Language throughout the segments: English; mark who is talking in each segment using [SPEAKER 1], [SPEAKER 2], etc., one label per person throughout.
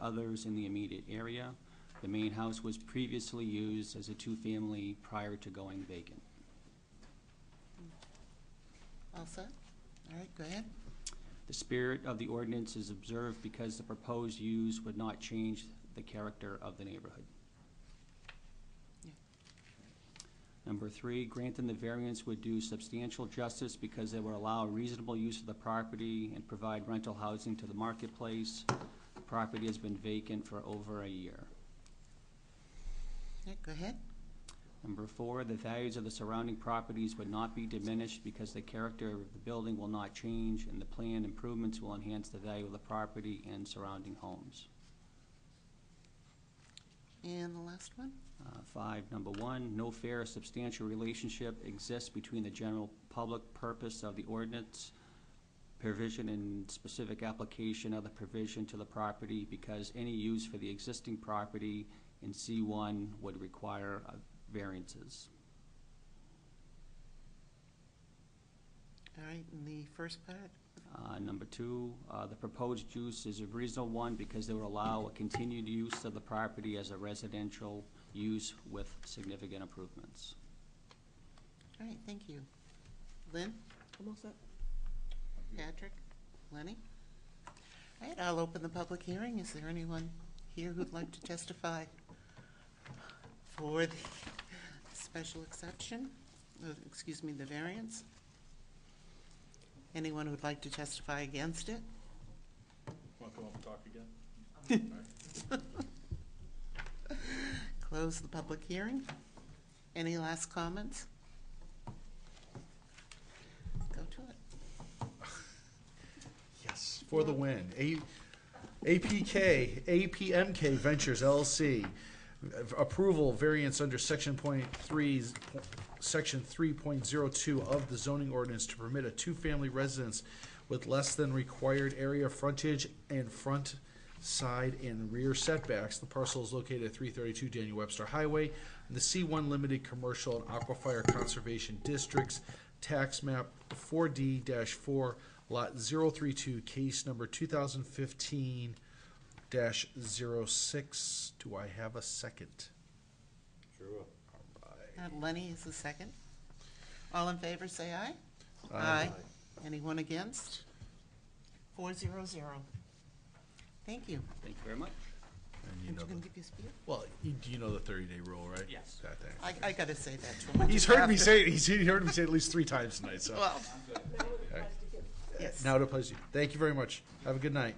[SPEAKER 1] others in the immediate area. The main house was previously used as a two-family prior to going vacant.
[SPEAKER 2] All set? All right, go ahead.
[SPEAKER 1] The spirit of the ordinance is observed because the proposed use would not change the character of the neighborhood.
[SPEAKER 2] Yeah.
[SPEAKER 1] Number three, granting the variance would do substantial justice because it would allow reasonable use of the property and provide rental housing to the marketplace. The Property has been vacant for over a year.
[SPEAKER 2] Yeah, go ahead.
[SPEAKER 1] Number four, the values of the surrounding properties would not be diminished because the character of the building will not change and the planned improvements will enhance the value of the property and surrounding homes.
[SPEAKER 2] And the last one?
[SPEAKER 1] Uh, Five, number one, no fair or substantial relationship exists between the general public purpose of the ordinance provision and specific application of the provision to the property because any use for the existing property in C one would require uh, variances.
[SPEAKER 2] All right, and the first part?
[SPEAKER 1] Uh, Number two, uh, the proposed use is a reasonable one because they would allow a continued use of the property as a residential use with significant improvements.
[SPEAKER 2] All right, thank you. Lynn?
[SPEAKER 3] I'm all set.
[SPEAKER 2] Patrick? Lenny? All right, I'll open the public hearing. Is there anyone here who'd like to testify for the special exception, uh, excuse me, the variance? Anyone who'd like to testify against it?
[SPEAKER 4] Want to come up and talk again?
[SPEAKER 2] Close the public hearing. Any last comments? Go to it.
[SPEAKER 5] Yes, for the win. A- APK, APMK Ventures LLC. Approval variance under section point three, section three point zero two of the zoning ordinance to permit a two-family residence with less than required area frontage and front side and rear setbacks. The parcel is located at three thirty-two Daniel Webster Highway in the C one Limited Commercial and Aquafire Conservation Districts, tax map four D four, lot zero three two, case number two thousand fifteen dash zero six. Do I have a second?
[SPEAKER 4] Sure
[SPEAKER 2] Uh, Lenny is the second. All in favor, say aye.
[SPEAKER 5] Aye.
[SPEAKER 2] Anyone against? Four zero zero. Thank you.
[SPEAKER 1] Thank you very much.
[SPEAKER 5] And you
[SPEAKER 2] And
[SPEAKER 5] know
[SPEAKER 2] you gonna
[SPEAKER 5] the,
[SPEAKER 2] give your speech?
[SPEAKER 5] well, you, do you know the thirty day rule, right?
[SPEAKER 1] Yes.
[SPEAKER 5] That thing.
[SPEAKER 2] I, I gotta say that to him.
[SPEAKER 5] He's heard me say, he's he heard me say it at least three times tonight, so.
[SPEAKER 2] Well,
[SPEAKER 5] Okay.
[SPEAKER 2] yes.
[SPEAKER 5] Now it applies to you. Thank you very much. Have a good night.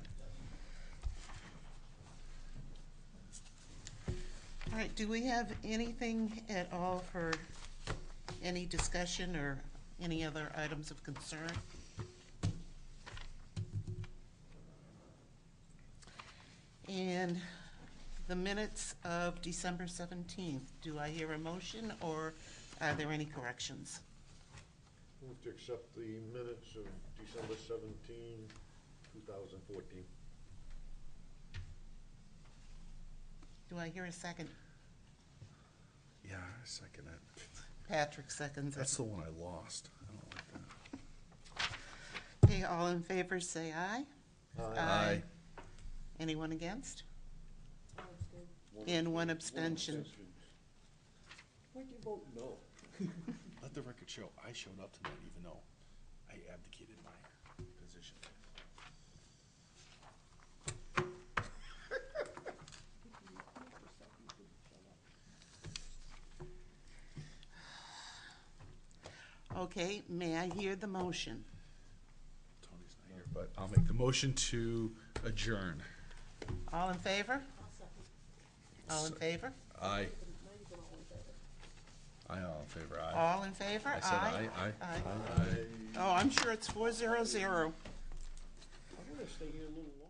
[SPEAKER 2] All right, do we have anything at all for any discussion or any other items of concern? And the minutes of December seventeenth, do I hear a motion or are there any corrections?
[SPEAKER 6] Move to accept the minutes of December 17, 2014.
[SPEAKER 2] Do I hear a second?
[SPEAKER 5] Yeah, I second it.
[SPEAKER 2] Patrick seconds
[SPEAKER 5] That's
[SPEAKER 2] it.
[SPEAKER 5] the one I lost. I don't like that.
[SPEAKER 2] Okay, all in favor, say aye.
[SPEAKER 5] Aye.
[SPEAKER 2] Anyone against? And one abstention.
[SPEAKER 4] Why'd you vote no? Let the record show, I showed up tonight even though I abdicated my position.
[SPEAKER 2] Okay, may I hear the motion?
[SPEAKER 4] Tony's not here.
[SPEAKER 5] But I'll make the motion to adjourn.
[SPEAKER 2] All in favor? All in favor?
[SPEAKER 5] Aye. Aye, all in favor, aye.
[SPEAKER 2] All in favor?
[SPEAKER 5] I said aye, aye.
[SPEAKER 2] Aye. Oh, I'm sure it's four zero zero.
[SPEAKER 6] I'm gonna stay here a little